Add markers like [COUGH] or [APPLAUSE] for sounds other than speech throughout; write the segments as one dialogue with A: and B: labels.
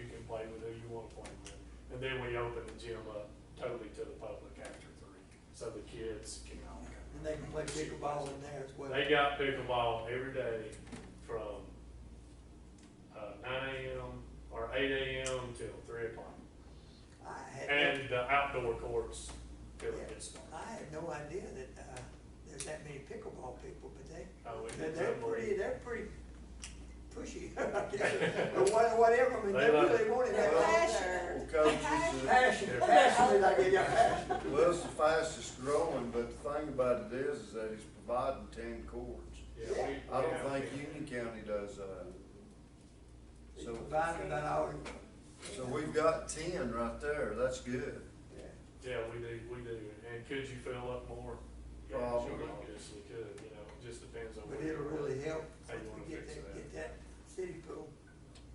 A: and who you wanna play with. And then we open the gym up totally to the public after three, so the kids can all come.
B: And they can play pickleball in there as well.
A: They got pickleball every day from, uh, nine AM or eight AM till three o'clock.
B: I had,
A: And the outdoor courts till it gets
B: no-
A: dark.
B: I had no idea that, uh, there's that many pickleball people, but they,
A: Oh, we
B: they're,
A: did
B: they're
A: that one.
B: pretty, they're pretty pushy, [LAUGHS] I guess, or what- whatever, I mean, they
A: They love
B: really
A: it.
B: want it.
C: They're
B: They're
C: passionate.
D: Coach, it's the-
B: Passionate, passionate, I get you,
A: [LAUGHS]
B: passionate.
D: well, it's the fastest growing, but the thing about it is, is that it's providing ten courts.
A: Yeah, we- we
D: I
A: have
D: don't think
A: been-
D: Union County does uh, that.
B: They
D: So,
B: provided by all,
D: so we've got ten right there, that's good.
B: yeah.
A: Yeah, we do, we do, and could you fill up more? Yeah,
D: Probably.
A: sure, Obviously could, you know, it just depends on.
B: But
A: where
B: it'll
A: you are.
B: really help
A: How you wanna
B: to get
A: fix
B: that,
A: that.
B: get that city pool.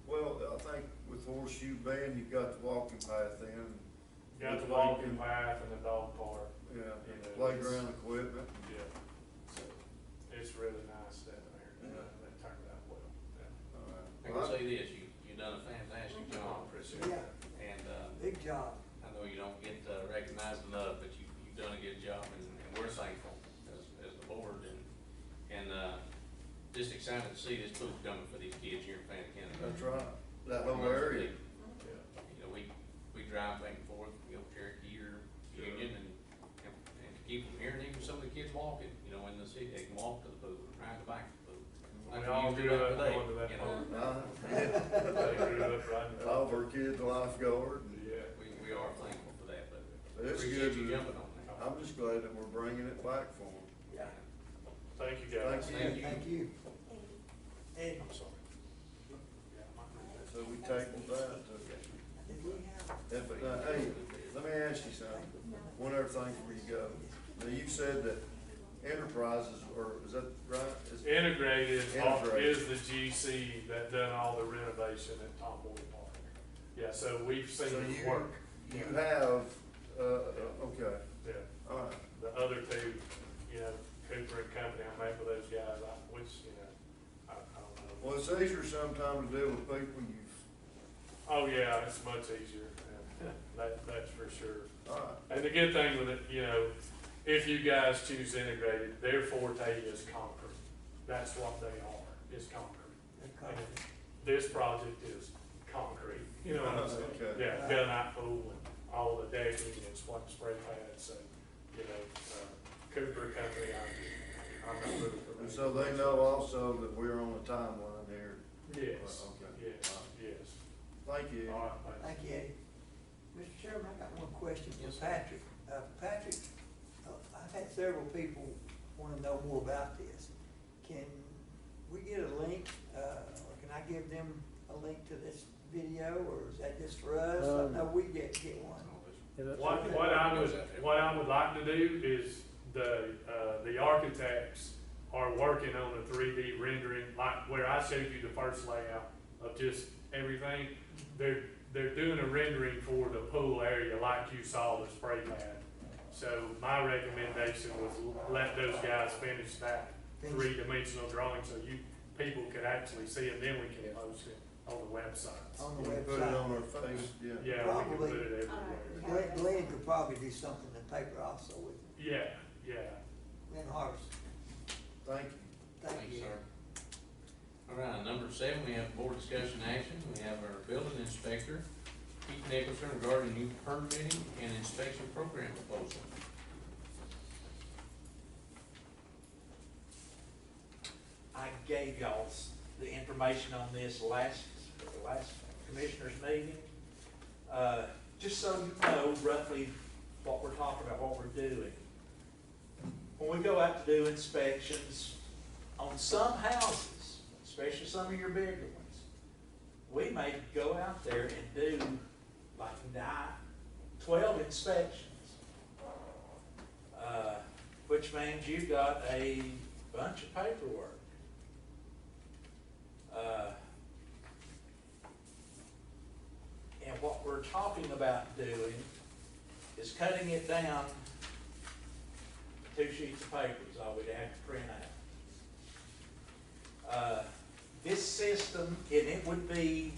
D: Well, I think with Horseshoe Bend, you've got the walking path in,
A: Got the walking path and the dog park,
D: yeah,
A: Yeah,
D: and
A: it's-
D: playground equipment.
A: yeah, so it's really nice down there, and uh,
D: Yeah.
A: that turned out well. yeah.
D: All
E: I
D: right.
E: can say this, you, you done a fantastic job, Chris,
B: Yeah,
E: and, uh,
B: big job.
E: I know you don't get, uh, recognized enough, but you, you've done a good job, and, and we're thankful as, as the board, and, and, uh, just excited to see this pool coming for these kids here in Fannin County.
D: That's right, that whole area.
A: Yeah,
E: You know, we, we drive back and forth, we go Cherokee or Union, and, and and to keep them here, and even some of the kids walking, you know, in the city, they can walk to the pool, ride the bike to the pool. Like
A: We all
E: you
A: grew
E: do
A: up
E: today,
A: going to that
E: you know.
A: pool,
D: Uh,
A: they grew up riding. the-
D: All of our kids are lifeguard, and
A: Yeah,
E: We, we are thankful for that, but
D: But it's good
E: appreciate you
D: to-
E: jumping on that.
D: I'm just glad that we're bringing it back for them.
B: Yeah.
A: thank you guys.
D: Thank
E: Thank you.
B: Thank you. And
A: I'm sorry. Yeah, my-
D: So we tabled that.
B: did we have,
D: If, uh, hey, let me ask you something, one other thing before you go. Now, you said that enterprises, or is that right? Is-
A: Integrated off-
D: Integrated.
A: is the GC that done all the renovation at Tom Boyd Park. Yeah, so we've
D: So
A: seen
D: you,
A: it work.
D: you have, uh, okay,
A: Yeah,
D: all right.
A: the other two, you know, Cooper and company, I'm happy with those guys, I, which, you know, I, I don't know.
D: Well, it's easier sometimes to deal with people you've,
A: Oh, yeah, it's much easier, [LAUGHS] yeah. that, that's for sure.
D: all right,
A: And the good thing with it, you know, if you guys choose integrated, their forte is concrete. That's what they are, is concrete.
B: the
A: And
B: company?
A: This project is concrete, you know what I'm saying?
D: Okay.
A: Yeah, gunite pool and all the decking and spot spray pads and, you know, uh, Cooper Company, I'm, I'm not really familiar.
D: and so they know also that we're on a timeline here.
A: Yes,
D: Okay.
A: yes, yes.
D: Thank you.
A: All right, thanks.
B: Thank you, Eddie. Mr. Chairman, I got one question
E: Yes,
B: for
E: sir.
B: Patrick. Uh, Patrick, uh, I've had several people wanna know more about this. Can we get a link, uh, or can I give them a link to this video, or is that just for us? I
F: Um,
B: know we get, get one.
A: What, what I would, what I would like to do is the, uh, the architects are working on a three D rendering, like where I showed you the first layout of just everything. They're, they're doing a rendering for the pool area like you saw the spray pad. So my recommendation was let those guys finish that three dimensional drawing so you, people could actually see it, then we can post it on the websites.
B: On
D: We
B: the
D: can put it on
B: website.
D: our face, yeah.
A: Yeah, we can put it everywhere.
B: Glenn, Glenn could probably do something in paper also with
A: Yeah, yeah.
B: Glenn Harvest.
D: Thank you.
B: Thank you.
E: sir. All right, number seven, we have board discussion action. We have our building inspector, Pete Nicholson, regarding new permitting and inspection program proposal.
G: I gave y'all s- the information on this last, last commissioners meeting. Uh, Just so you know roughly what we're talking about, what we're doing. When we go out to do inspections on some houses, especially some of your bigger ones, we may go out there and do like nine, twelve inspections. Uh, Which means you've got a bunch of paperwork. Uh, And what we're talking about doing is cutting it down to two sheets of paper is all we'd have to print out. Uh, This system, and it would be